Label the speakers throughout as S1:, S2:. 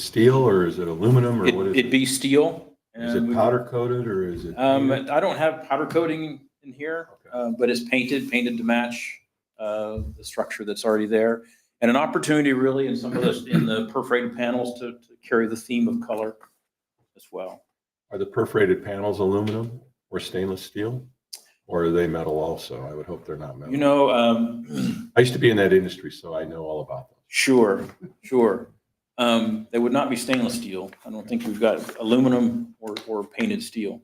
S1: steel or is it aluminum or
S2: It-
S1: what is
S2: It'd
S1: it?
S2: be steel.
S1: Is
S2: and
S1: it
S2: we-
S1: powder coated or is it?
S2: Um,
S1: painted?
S2: I don't have powder coating in here, uh, but it's painted, painted to match, uh, the structure that's already there. And an opportunity really in some of those, in the perforated panels to, to carry the theme of color as well.
S1: Are the perforated panels aluminum or stainless steel? Or are they metal also? I would hope they're not
S2: You
S1: metal.
S2: know, um,
S1: I used to be in that industry, so I know all about them.
S2: sure, sure. Um, they would not be stainless steel. I don't think we've got aluminum or, or painted steel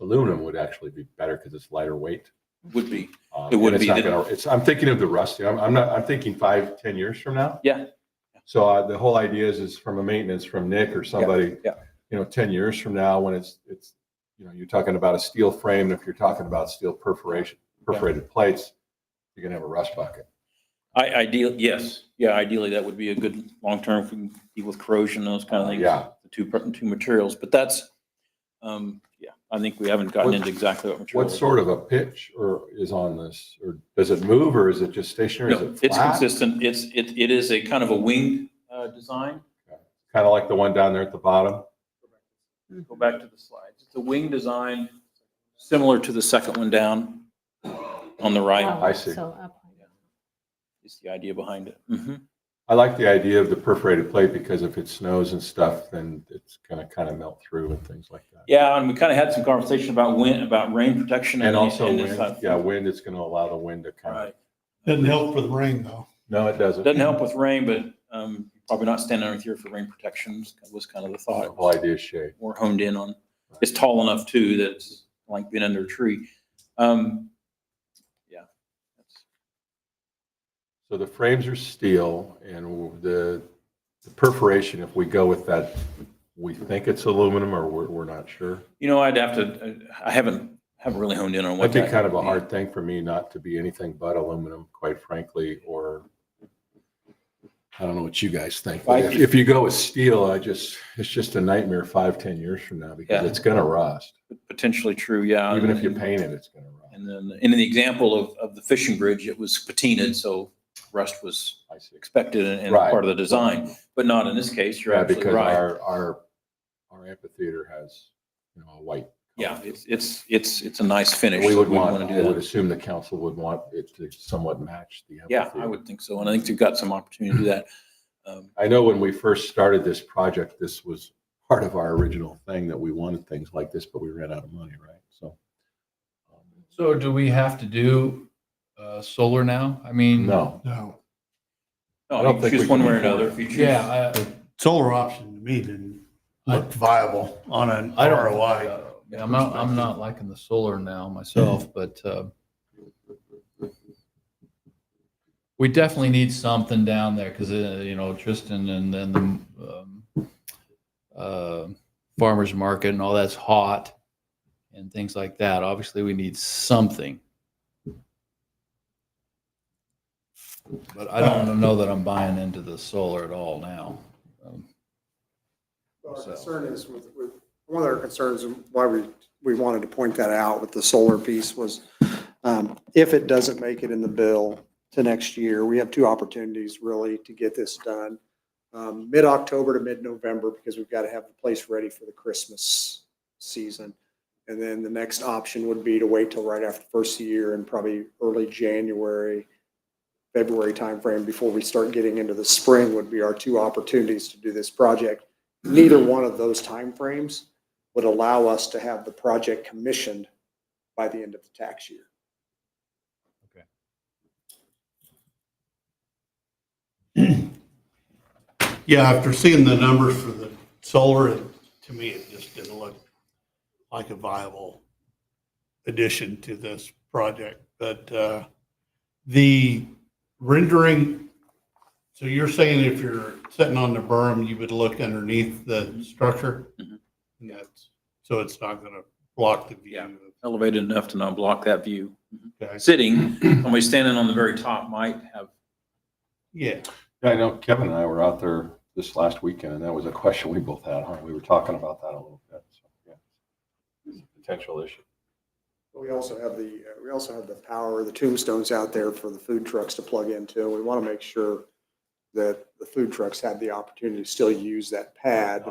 S1: Aluminum would actually be better because it's lighter weight.
S2: would be.
S1: Um,
S2: It would
S1: and it's
S2: be
S1: not
S2: the-
S1: gonna- It's, I'm thinking of the rust. I'm, I'm not, I'm thinking five, ten years from now.
S2: Yeah.
S1: So uh, the whole idea is, is from a maintenance from Nick or somebody,
S2: yeah.
S1: you know, ten years from now, when it's, it's, you know, you're talking about a steel frame, and if you're talking about steel perforation, perforated plates, you're gonna have a rust bucket.
S2: I, ideal, yes, yeah, ideally, that would be a good long-term, if we can deal with corrosion, those kind of things.
S1: Yeah.
S2: The two, per- two materials, but that's, um, yeah, I think we haven't gotten
S1: What-
S2: into exactly what material.
S1: What sort of a pitch or is on this? Or does it move or is it just stationary? Is
S2: No,
S1: it
S2: it's
S1: flat?
S2: consistent, it's, it, it is a kind of a winged, uh, design.
S1: Kind of like the one down there at the bottom?
S2: Go back to the slides, it's a wing design, similar to the second one down on the right,
S1: I see.
S3: Oh, So up high.
S2: is the idea behind it. Mhm.
S1: I like the idea of the perforated plate because if it snows and stuff, then it's gonna kind of melt through and things like that.
S2: Yeah, and we kind of had some conversation about wind, about rain protection.
S1: And also
S2: this
S1: wind,
S2: type-
S1: yeah, wind, it's gonna allow the wind to kind of,
S2: Right.
S4: Doesn't help for the rain though.
S1: no, it doesn't.
S2: Doesn't help with rain, but um, probably not standing underneath here for rain protections was kind of the
S1: The
S2: thought.
S1: whole idea is shade.
S2: More honed in on, it's tall enough too that it's like being under a tree. Um, Yeah. That's-
S1: So the frames are steel and the the perforation, if we go with that, we think it's aluminum or we're, we're not sure.
S2: You know, I'd have to, I haven't, haven't really honed in on what.
S1: That'd be
S2: that
S1: kind of
S2: would
S1: a hard thing for me not to be anything but aluminum, quite frankly, or I don't know what you guys think. but
S2: I-
S1: If if you go with steel, I just, it's just a nightmare five, ten years from now because
S2: Yeah. Um,
S1: it's gonna rust.
S2: Potentially true, yeah.
S1: Even if you paint it, it's gonna rust.
S2: And then, and in the example of, of the fishing bridge, it was patinaed, so rust was
S1: I see.
S2: expected and and
S1: Right.
S2: part of the design, but not in this case. You're
S1: Yeah,
S2: absolutely
S1: because
S2: right.
S1: our, our, our amphitheater has, you know, a white.
S2: Yeah,
S1: color.
S2: it's, it's, it's, it's a nice finish.
S1: We would
S2: We'd
S1: want,
S2: wanna do
S1: I
S2: that.
S1: would assume the council would want it to somewhat match the
S2: Yeah,
S1: amphitheater.
S2: I would think so. And I think you've got some opportunity to do that. Um,
S1: I know when we first started this project, this was part of our original thing that we wanted things like this, but we ran out of money, right? So. um,
S5: So do we have to do uh, solar now? I mean,
S1: No,
S4: No,
S1: I
S2: No,
S1: don't
S2: you
S1: think
S2: can choose
S1: we
S2: one
S1: can
S2: way or
S1: afford
S2: another.
S1: it.
S2: If you choose,
S5: Yeah, I-
S4: solar option to me didn't look viable on an
S1: I don't-
S4: ROI.
S5: yeah, I'm not, I'm not liking the solar now myself, but uh, we definitely need something down there because, you know, Tristan and then the um, uh, farmer's market and all that's hot and things like that. Obviously, we need something. But I don't know that I'm buying into the solar at all now. Um,
S6: Our
S5: So-
S6: concern is with, with, one of our concerns and why we, we wanted to point that out with the solar piece was um, if it doesn't make it in the bill to next year, we have two opportunities really to get this done. Um, Mid-October to mid-November because we've got to have the place ready for the Christmas season. And then the next option would be to wait till right after the first year and probably early January, February timeframe before we start getting into the spring would be our two opportunities to do this project neither one of those timeframes would allow us to have the project commissioned by the end of the tax year.
S4: Yeah, after seeing the numbers for the solar, it- to me, it just didn't look like a viable addition to this project. But uh, the rendering, so you're saying if you're sitting on the berm, you would look underneath the structure?
S1: Mm-hmm.
S2: Mhm.
S4: And that's, so it's not going to block the
S2: Yeah.
S4: view?
S2: elevated enough to not block that view.
S4: Okay.
S2: Sitting, somebody standing on the very top might have,
S4: Yeah.
S1: Yeah, I know Kevin and I were out there this last weekend and that was a question we both had, huh? We were talking about that a little bit. So, yeah. It's a Potential issue.
S6: But we also have the, uh, we also have the power, the tombstones out there for the food trucks to plug into. We want to make sure that the food trucks have the opportunity to still use that pad